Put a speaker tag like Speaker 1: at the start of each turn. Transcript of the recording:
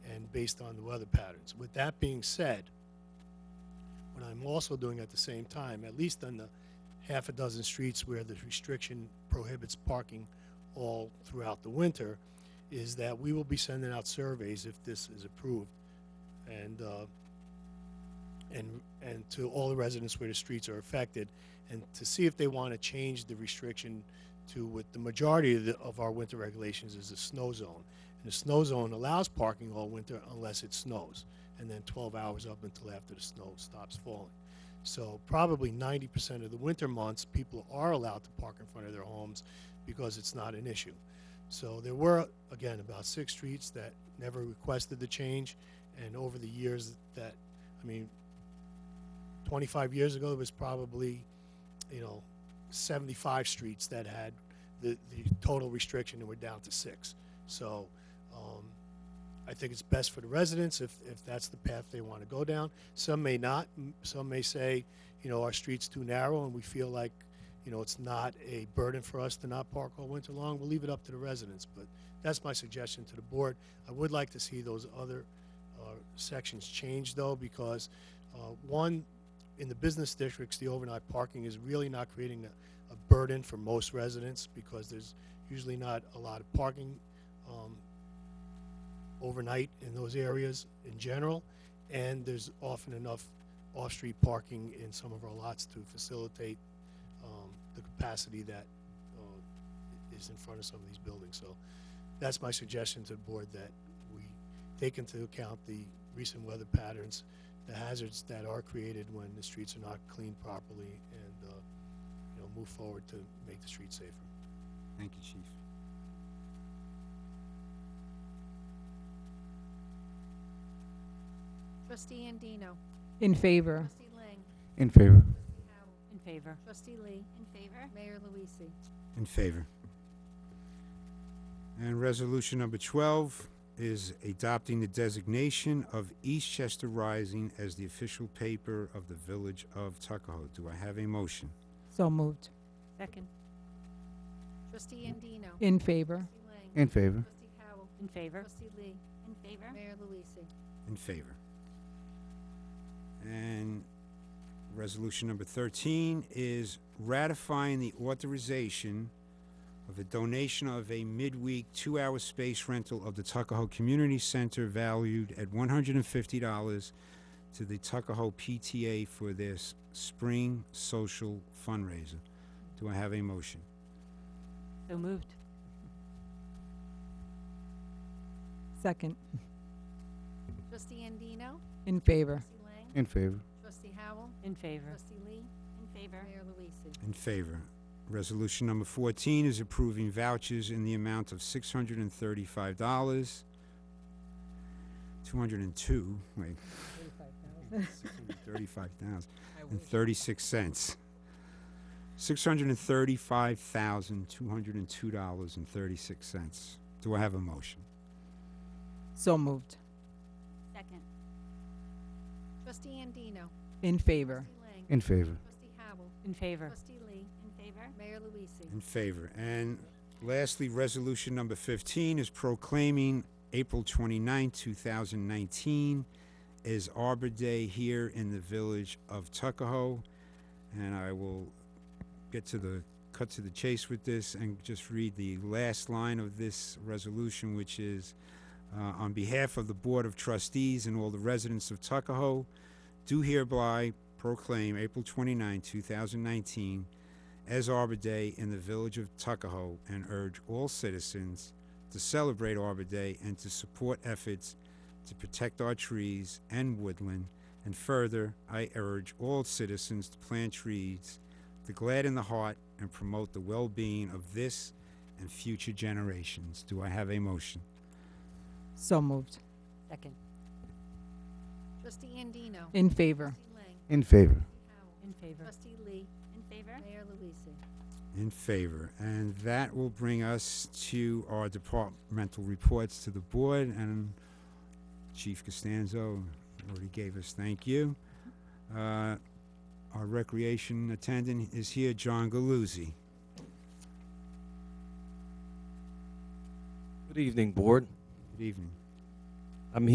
Speaker 1: based on the weather patterns. With that being said, what I'm also doing at the same time, at least on the half a dozen streets where the restriction prohibits parking all throughout the winter, is that we will be sending out surveys if this is approved. And, uh, and, and to all the residents where the streets are affected, and to see if they want to change the restriction to what the majority of, the, of our winter regulations is a snow zone. And the snow zone allows parking all winter unless it snows, and then 12 hours up until after the snow stops falling. So probably 90% of the winter months, people are allowed to park in front of their homes because it's not an issue. So there were, again, about six streets that never requested the change, and over the years that, I mean, 25 years ago, there was probably, you know, 75 streets that had the, the total restriction, and we're down to six. So um, I think it's best for the residents if, if that's the path they want to go down. Some may not, M- some may say, you know, our street's too narrow, and we feel like, you know, it's not a burden for us to not park all winter long. We'll leave it up to the residents, but that's my suggestion to the board. I would like to see those other uh, sections changed, though, because, uh, one, in the business districts, the overnight parking is really not creating a, a burden for most residents because there's usually not a lot of parking um, overnight in those areas in general, and there's often enough off-street parking in some of our lots to facilitate um, the capacity that uh, is in front of some of these buildings. So that's my suggestion to the board, that we take into account the recent weather patterns, the hazards that are created when the streets are not cleaned properly, and, uh, you know, move forward to make the streets safer.
Speaker 2: Thank you, Chief.
Speaker 3: Trustee Andino.
Speaker 4: In favor.
Speaker 3: Trustee Lang.
Speaker 2: In favor.
Speaker 3: Trustee Howell.
Speaker 5: In favor.
Speaker 3: Trustee Lee.
Speaker 5: In favor.
Speaker 3: Mayor Luise.
Speaker 2: In favor. And resolution number 12 is adopting the designation of Eastchester Rising as the official paper of the Village of Tuckahoe. Do I have a motion?
Speaker 4: So moved.
Speaker 5: Second.
Speaker 3: Trustee Andino.
Speaker 4: In favor.
Speaker 3: Trustee Lang.
Speaker 6: In favor.
Speaker 3: Trustee Howell.
Speaker 5: In favor.
Speaker 3: Trustee Lee.
Speaker 5: In favor.
Speaker 3: Mayor Luise.
Speaker 2: In favor. And resolution number 13 is ratifying the authorization of a donation of a midweek two-hour space rental of the Tuckahoe Community Center valued at $150 to the Tuckahoe PTA for their s- spring social fundraiser. Do I have a motion?
Speaker 5: So moved.
Speaker 4: Second.
Speaker 3: Trustee Andino.
Speaker 4: In favor.
Speaker 3: Trustee Lang.
Speaker 6: In favor.
Speaker 3: Trustee Howell.
Speaker 5: In favor.
Speaker 3: Trustee Lee.
Speaker 5: In favor.
Speaker 3: Mayor Luise.
Speaker 2: In favor. Resolution number 14 is approving vouchers in the amount of $635. 202, wait, 635,000 and 36 cents. $635,202.36. Do I have a motion?
Speaker 4: So moved.
Speaker 5: Second.
Speaker 3: Trustee Andino.
Speaker 4: In favor.
Speaker 3: Trustee Lang.
Speaker 6: In favor.
Speaker 3: Trustee Howell.
Speaker 5: In favor.
Speaker 3: Trustee Lee.
Speaker 5: In favor.
Speaker 3: Mayor Luise.
Speaker 2: In favor. And lastly, resolution number 15 is proclaiming April 29, 2019 is Arbor Day here in the village of Tuckahoe. And I will get to the, cut to the chase with this and just read the last line of this resolution, which is, uh, on behalf of the Board of Trustees and all the residents of Tuckahoe, do hereby proclaim April 29, 2019 as Arbor Day in the village of Tuckahoe and urge all citizens to celebrate Arbor Day and to support efforts to protect our trees and woodland. And further, I urge all citizens to plant trees to gladden the heart and promote the well being of this and future generations. Do I have a motion?
Speaker 4: So moved.
Speaker 5: Second.
Speaker 3: Trustee Andino.
Speaker 4: In favor.
Speaker 3: Trustee Lang.
Speaker 6: In favor.
Speaker 3: Trustee Howell.
Speaker 5: In favor.
Speaker 3: Trustee Lee.
Speaker 5: In favor.
Speaker 3: Mayor Luise.
Speaker 2: In favor. And that will bring us to our departmental reports to the board, and Chief Costanzo already gave us thank you. Uh, Our recreation attendant is here, John Galuzzi.
Speaker 7: Good evening, Board.
Speaker 2: Good evening.